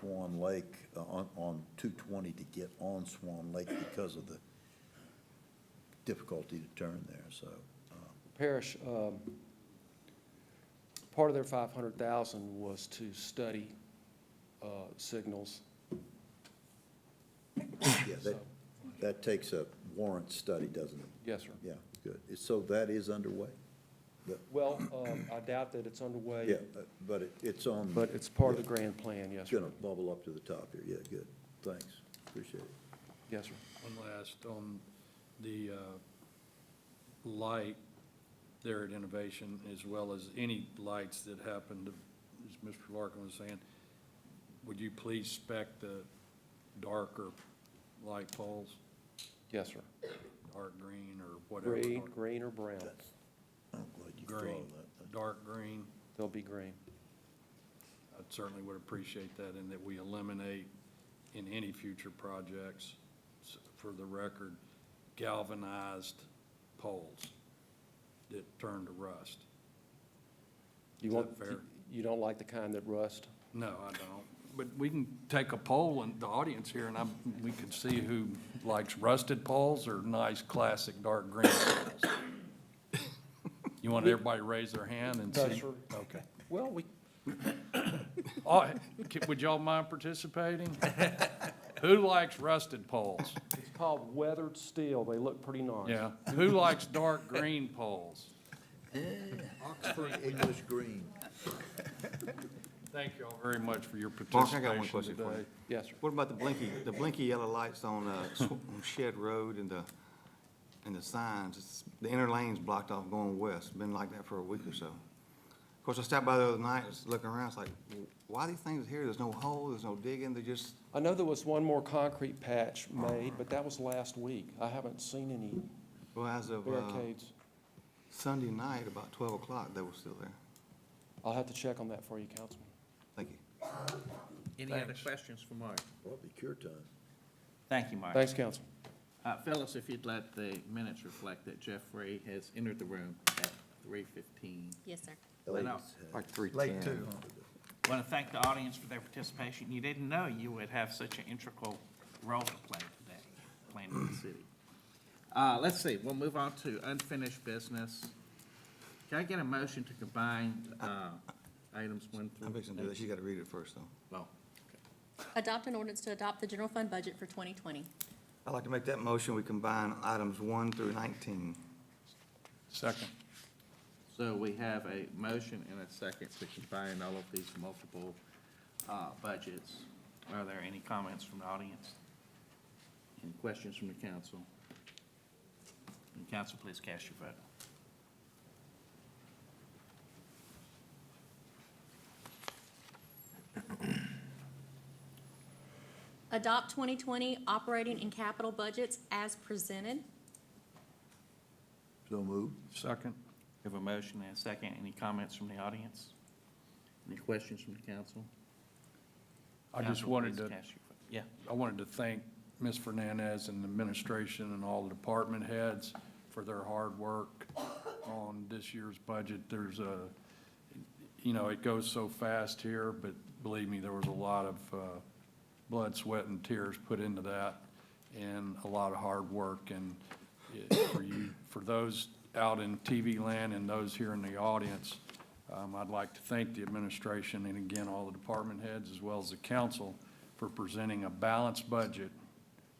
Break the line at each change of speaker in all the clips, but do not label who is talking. Swan Lake, uh, on, on two twenty to get on Swan Lake because of the difficulty to turn there, so.
Parish, um, part of their five hundred thousand was to study, uh, signals.
Yeah, that,
So,
that takes a warrant study, doesn't it?
Yes, sir.
Yeah, good. So that is underway?
Well, um, I doubt that it's
Yeah,
underway,
uh, but it, it's on.
but it's part of the grand plan, yes,
It's
sir.
gonna bubble up to the top here, yeah, good, thanks, appreciate it.
Yes, sir.
One last, on the uh, light there at Innovation, as well as any lights that happen, to- as Mr. Larkin was saying, would you please spec the darker light poles,
Yes, sir.
dark green or whatever?
Green, green or brown,
I'm glad you followed
Green,
that.
dark green.
they'll be green.
I certainly would appreciate that, and that we eliminate in any future projects, s- for the record, galvanized poles that turn to rust.
You
Is
want,
that fair?
you don't like the kind that rust?
No, I don't, but we can take a poll in the audience here, and I'm, we can see who likes rusted poles or nice, classic, dark green poles. You want everybody to raise their hand and see?
No, sir.
Okay.
Well, we,
All right, Oh, c- would y'all mind participating? Who likes rusted poles?
it's called weathered steel, they look pretty nice.
Yeah, who likes dark green poles?
Oxford English green.
Thank you all very much for your
Mark, I got one
participation
question for
today.
you.
Yes, sir.
What about the blinky, the blinky yellow lights on uh, Sw- on Shed Road and the, and the signs? It's- The inner lane's blocked off going west, been like that for a week or so. Of course, I stopped by the other night, was looking around, it's like, why these things here? There's no hole, there's no digging, they're just,
I know there was one more concrete patch made, but that was last week. I haven't seen any
well, as of uh,
barricades.
Sunday night, about twelve o'clock, they were still there.
I'll have to check on that for you, Councilman.
Thank you.
Any other
Thanks.
questions for Mark?
Probably cure time.
Thank you, Mark.
Thanks, Council.
Uh, Fellas, if you'd let the minutes reflect that Jeffrey has entered the room at three fifteen.
Yes, sir.
Went out.
Ladies, uh,
Like three
Late
ten.
two.
Want to thank the audience for their participation. You didn't know you would have such an integral role to play today, planning the city. Uh, let's see, we'll move on to unfinished business. Can I get a motion to combine, uh, items one through?
I'm fixing to do that, she's got to read it first, though.
Oh,
Adopt an ordinance to adopt the general fund budget for 2020.
I'd like to make that motion, we combine items one through nineteen.
Second.
So we have a motion and a second to combine all of these multiple uh, budgets. Are there any comments from the audience? Any questions from the council? And council, please cast your vote.
Adopt 2020 operating and capital budgets as presented.
So moved.
Second.
We Have a motion and a second. Any comments from the audience? Any questions from the council?
I just
Council,
wanted
please
to,
cast your vote. Yeah.
I wanted to thank Ms. Fernandez and the administration and all the department heads for their hard work on this year's budget. There's a, you know, it goes so fast here, but believe me, there was a lot of uh, blood, sweat, and tears put into that, and a lot of hard work. And it- for you, for those out in TV land and those here in the audience, um, I'd like to thank the administration and again, all the department heads as well as the council for presenting a balanced budget,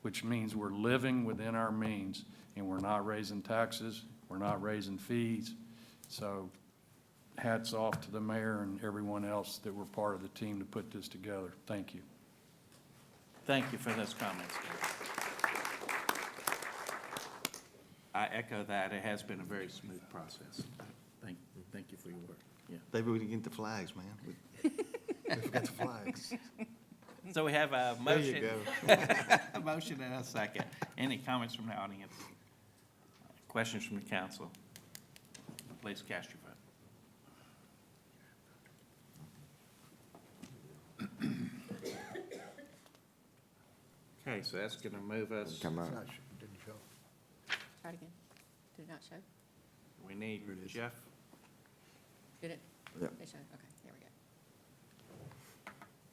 which means we're living within our means, and we're not raising taxes, we're not raising fees. So hats off to the mayor and everyone else that were part of the team to put this together. Thank you.
Thank you for those comments. Gary. I echo that. It has been a very smooth process. Thank, thank you for your work. Yeah.
Maybe we can get the flags, man. We- We forgot the flags.
So we have a
There you
motion,
go.
a motion and a second. Any comments from the audience? Questions from the council? Please cast your vote. Okay, so that's going to move us,
Come on.
Try it again. Did it not show?
we need Jeff.
Did it?
Yeah.
It showed, okay.